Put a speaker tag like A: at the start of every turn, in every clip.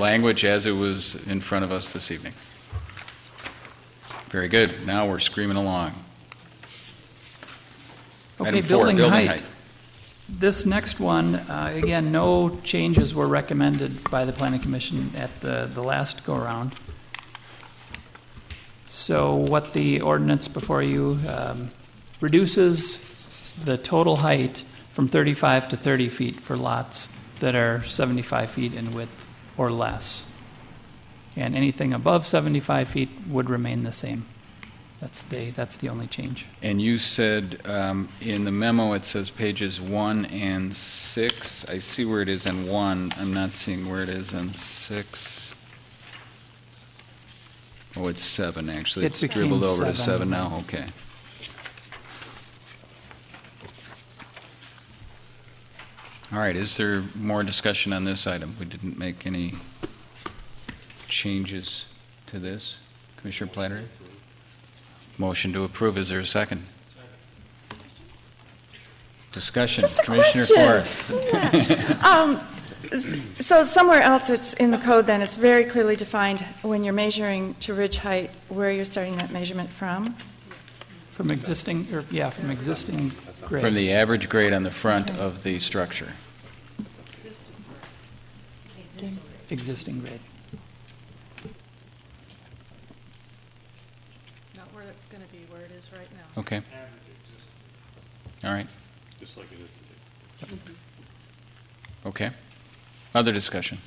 A: language as it was in front of us this evening. Very good. Now we're screaming along.
B: Okay,
A: Item four,
B: building height. This next one, uh, again, no changes were recommended by the planning commission at the, the last go-around. So what the ordinance before you um, reduces the total height from 35 to 30 feet for lots that are 75 feet in width or less. And anything above 75 feet would remain the same. That's the, that's the only change.
A: And you said, um, in the memo, it says pages one and six. I see where it is in one. I'm not seeing where it is in six. Oh, it's seven, actually.
B: It
A: It's
B: became
A: dribbled over to seven
B: seven.
A: now, okay. All right, is there more discussion on this item? We didn't make any changes to this. Commissioner Platter? Motion to approve, is there a second? Discussion,
C: Just a
A: Commissioner
C: question.
A: Forrest.
C: Um, So somewhere else, it's in the code then, it's very clearly defined when you're measuring to ridge height, where you're starting that measurement from?
B: From existing, or, yeah, from existing grade.
A: From the average grade on the front of the structure.
B: Existing grade.
D: Not where it's going to be, where it is right now.
A: Okay. All right,
E: just like it is today.
A: okay. Other discussion?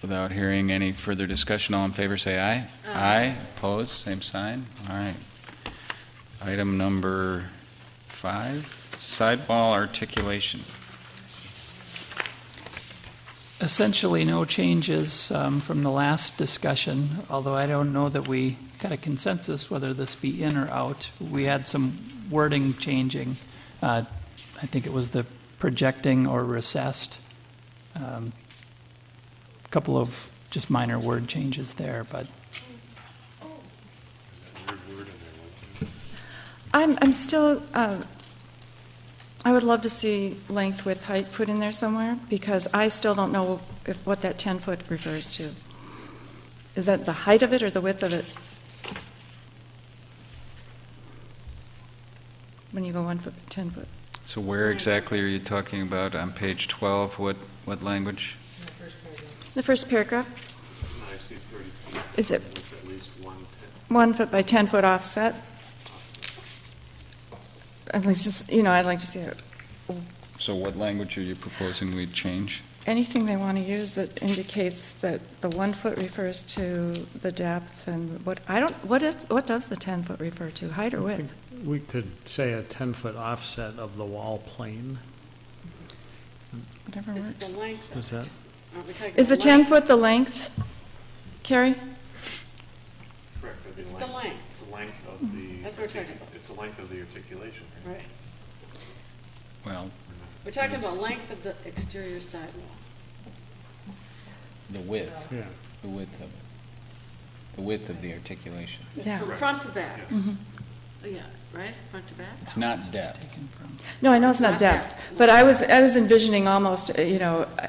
A: Without hearing any further discussion, all in favor, say aye. Aye. Opposed, same sign. All right. Item number five, sidewall articulation.
B: Essentially, no changes um, from the last discussion, although I don't know that we got a consensus whether this be in or out. We had some wording changing. Uh, I think it was the projecting or recessed. Um, Couple of just minor word changes there, but
C: I'm, I'm still, uh, I would love to see length, width, height put in there somewhere, because I still don't know if, what that 10-foot refers to. Is that the height of it or the width of it? When you go one foot, 10 foot?
A: So where exactly are you talking about? On page 12, what, what language?
C: The first paragraph,
E: I see 30 feet,
C: is it
E: which at least one tenth
C: one foot by 10 foot offset? I'd like to, s- you know, I'd like to see it.
A: So what language are you proposing we change?
C: anything they want to use that indicates that the one foot refers to the depth and what, I don't, what is, what does the 10-foot refer to, height or width?
F: We could say a 10-foot offset of the wall plane,
C: Whatever
G: It's
C: works.
G: the length.
F: is that?
G: Aren't we talking
C: Is the
G: about length?
C: 10-foot the length? Carrie?
E: correct, I
G: It's
E: think
G: the length,
E: It's
G: Mm-hmm.
E: the length of the.
G: That's what we're talking
E: articu-
G: about.
E: It's the length of the articulation. right?
G: right?
A: Well,
G: We're talking about length of the exterior sidewall.
A: the width,
F: Yeah.
A: the width of it, the width of the articulation.
G: It's
C: Yeah. Mm-hmm.
G: from front to back. Oh, Yeah, right, front to back?
A: It's not depth.
B: taken from.
C: No, I know it's
G: Not
C: not
G: depth.
C: depth, but I was, I was envisioning almost, uh, you know, uh,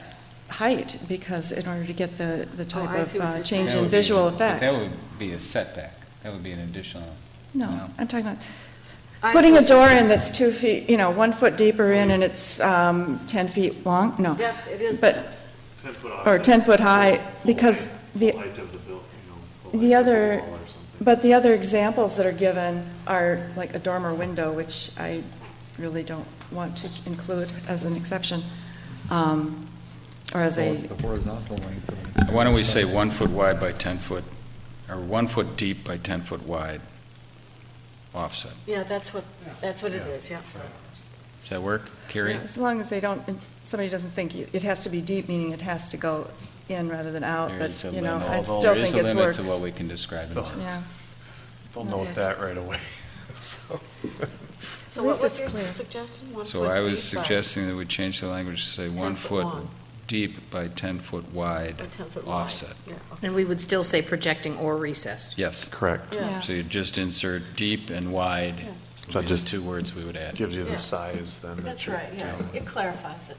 C: height, because in order to get the, the type
G: Oh, I
C: of
G: see what
C: uh,
G: you're
C: change
A: That
C: in
A: would be-
C: visual
A: but That
C: effect.
A: would be a setback. That would be an additional.
C: No, I'm talking about
G: I
C: putting
G: see
C: a
G: what you're
C: door
G: saying.
C: in that's two feet, you know, one foot deeper in and it's um, 10 feet long, no.
G: Depth, it is
C: But
G: depth.
E: 10 foot offset.
C: or 10-foot high,
E: full
C: because
E: height-
C: the,
E: full height of the buil- you know, full
C: the
E: height of
C: other,
E: wall or something.
C: but the other examples that are given are like a dormer window, which I really don't want to include as an exception, um, or as a,
H: The horizontal length. of it.
A: Why don't we say one foot wide by 10 foot, or one foot deep by 10 foot wide offset?
G: Yeah, that's what, that's what it is, yeah.
A: Does that work, Carrie?
C: as long as they don't, somebody doesn't think, you- it has to be deep, meaning it has to go in rather than out,
A: There
C: but,
A: is a
C: you know,
A: limit,
C: I
A: although
C: still
A: there is
C: think
A: a
C: it's
A: limit
C: works.
A: to what we can describe. in the-
C: Yeah,
E: They'll note that right away.
G: So
C: At
G: what
C: least
G: was
C: it's
G: your
C: clear.
G: suggestion? One
A: So
G: foot
A: I
G: deep
A: was
G: by-
A: suggesting that we change the language to say one
G: 10 foot
A: foot
G: long.
A: deep by 10 foot wide
G: Or 10 foot wide.
A: offset.
G: Yeah, Oh, okay.
I: And we would still say projecting or recessed.
A: Yes.
E: Correct.
G: Yeah.
C: yeah.
A: So you just insert deep and wide
J: would
A: So it
J: be the
A: just
J: two words we would add.
A: gives you
F: Yeah.
A: the size then that
F: That's
A: you're
F: right, yeah,
A: dealing with.
F: it clarifies it.